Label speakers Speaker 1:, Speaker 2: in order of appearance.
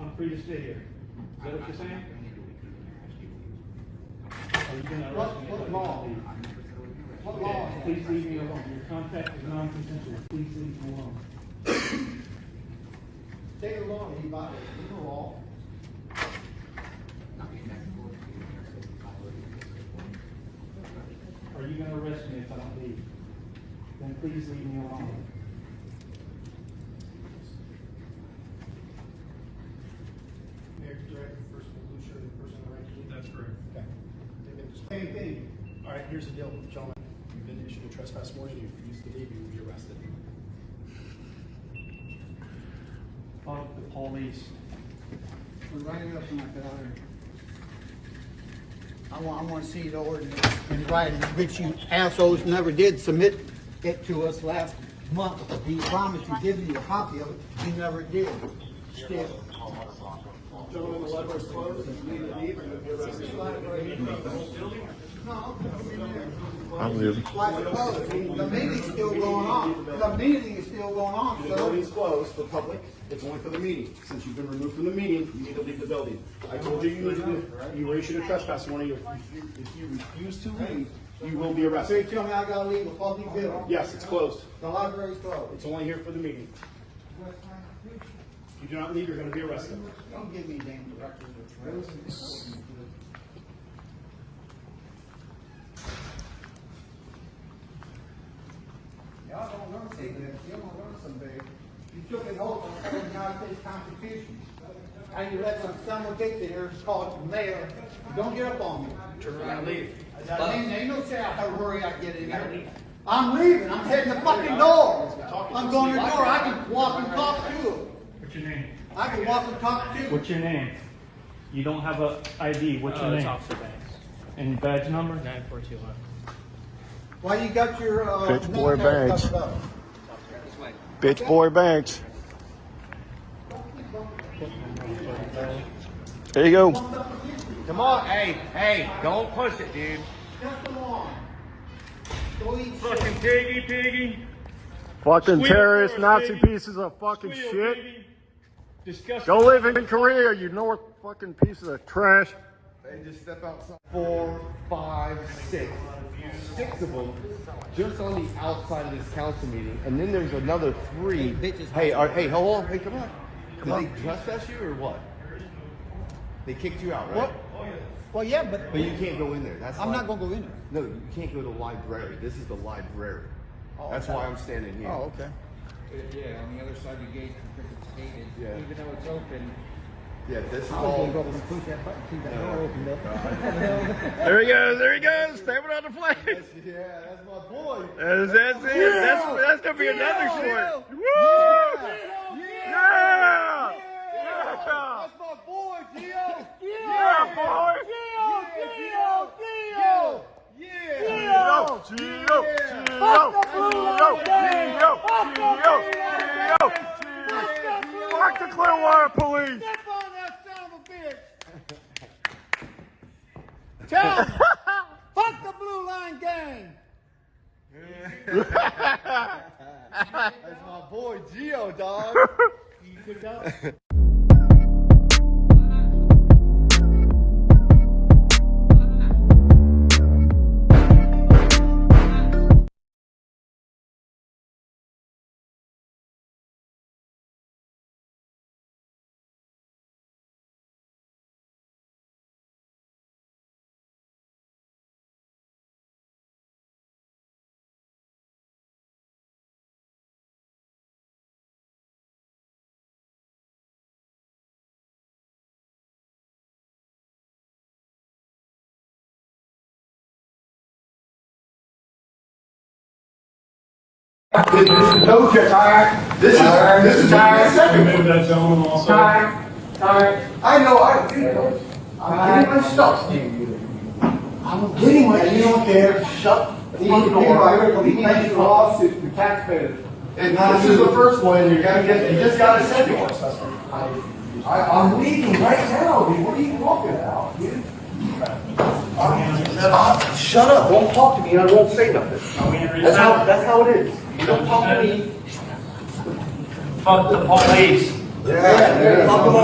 Speaker 1: I'm free to sit here. Is that what you're saying? Are you gonna arrest me?
Speaker 2: What- what law? What law is that?
Speaker 1: Please leave me alone. Your contact is non-consensual. Please leave me alone.
Speaker 2: State of law, he violated legal law.
Speaker 1: Are you gonna arrest me if I don't leave? Then please leave me alone.
Speaker 2: Mayor can direct the person to blue shirt and the person in the right jeans.
Speaker 3: That's correct.
Speaker 2: Okay. They've been just- Same thing. All right, here's the deal, gentlemen. You've been issued a trespass warning. If you refuse to leave, you will be arrested.
Speaker 1: Call the police.
Speaker 4: We're writing up something like that out here. I want, I want to see the ordinance in writing, which you assholes never did submit it to us last month. We promised to give you a copy of it, you never did. Still,
Speaker 2: Gentlemen, the library's closed. If you need to leave, you'll be arrested.
Speaker 4: no, I mean,
Speaker 5: I'm leaving.
Speaker 4: like, oh, the meeting's still going on, the meeting is still going on,
Speaker 2: The building's
Speaker 4: so.
Speaker 2: closed for public, it's only for the meeting. Since you've been removed from the meeting, you need to leave the building. I told you you needed to, you were issued a trespass warning, if you, if you refuse to leave, you will be
Speaker 4: So you
Speaker 2: arrested.
Speaker 4: tell me I gotta leave a public building?
Speaker 2: Yes, it's closed,
Speaker 4: The library's closed.
Speaker 2: it's only here for the meeting. If you do not leave, you're gonna be arrested.
Speaker 4: Don't give me damn directions or trails. Y'all don't learn something, you don't learn something. You took an oath on the United States Constitution. And you let some someone get there, called mayor, don't get up on me. That means ain't no say I gotta hurry, I get in here. I'm leaving, I'm heading the fucking door. I'm going to the door, I can walk and talk to him.
Speaker 1: What's your name?
Speaker 4: I can walk and talk to you.
Speaker 1: What's your name? You don't have a ID. What's your
Speaker 6: Uh, it's
Speaker 1: name?
Speaker 6: Officer Banks,
Speaker 1: And badge number?
Speaker 6: nine four two one.
Speaker 4: Why you got your, uh,
Speaker 5: Bitch boy
Speaker 4: military
Speaker 5: bags.
Speaker 4: covered up?
Speaker 5: Bitch boy Banks. There you go.
Speaker 7: Come on, hey, hey, don't push it, dude.
Speaker 4: Just come on. Go eat shit.
Speaker 3: Fucking piggy, piggy.
Speaker 5: Fucking
Speaker 3: Squeal
Speaker 5: terrorist
Speaker 3: for us,
Speaker 5: Nazi
Speaker 3: baby.
Speaker 5: pieces of fucking
Speaker 3: Squeal,
Speaker 5: shit.
Speaker 3: baby. Disgusting.
Speaker 5: Go live in Korea, you north fucking pieces of trash.
Speaker 8: four, five, six, six of them just on the outside of this council meeting, and then there's another three. Hey, are, hey, hold on, hey, come on. Did they trespass you or what? They kicked you out, right?
Speaker 4: Well, Oh, yeah, but
Speaker 8: But you can't go in there, that's
Speaker 4: I'm
Speaker 8: why-
Speaker 4: not gonna go in there.
Speaker 8: No, you can't go to the library, this is the library. That's why I'm standing here.
Speaker 4: Oh, okay.
Speaker 7: Uh, Yeah, on the other side of the gate, because it's gated,
Speaker 8: Yeah. Oh.
Speaker 7: even though it's open.
Speaker 8: Yeah, this is
Speaker 4: I was
Speaker 8: all.
Speaker 4: gonna go up and push that button, keep that door open, though.
Speaker 5: There he goes, there he goes, stamping on the flag.
Speaker 8: Yeah, that's my boy.
Speaker 5: That's, that's it. That's, that's gonna be another short. Woo! Yeah! Yeah!
Speaker 8: That's my boy, Gio.
Speaker 5: Yeah, boy!
Speaker 8: Gio, Gio, Yeah.
Speaker 5: Gio! Gio! Gio! Gio! Gio! Gio! Gio! Gio! Fuck the Clearwater Police!
Speaker 4: Tell 'em, fuck the Blue Line Gang.
Speaker 8: That's my boy, Gio, dog.
Speaker 2: Okay, time. This is, this is time.
Speaker 3: Remove that gentleman also.
Speaker 2: I know, I, I'm getting my stuff. I'm getting my, you don't care, shut the
Speaker 4: These people are here to be paying
Speaker 2: door.
Speaker 4: lawsuits to taxpayers.
Speaker 2: And this is the first one, and you gotta get, you just gotta send it to us. I, I'm leaving right now, dude, what are you talking about, dude? Uh, Shut up, don't talk to me, I won't say nothing. That's how, that's how it is. You don't talk to me.
Speaker 6: Fuck the police.
Speaker 2: Yeah, yeah.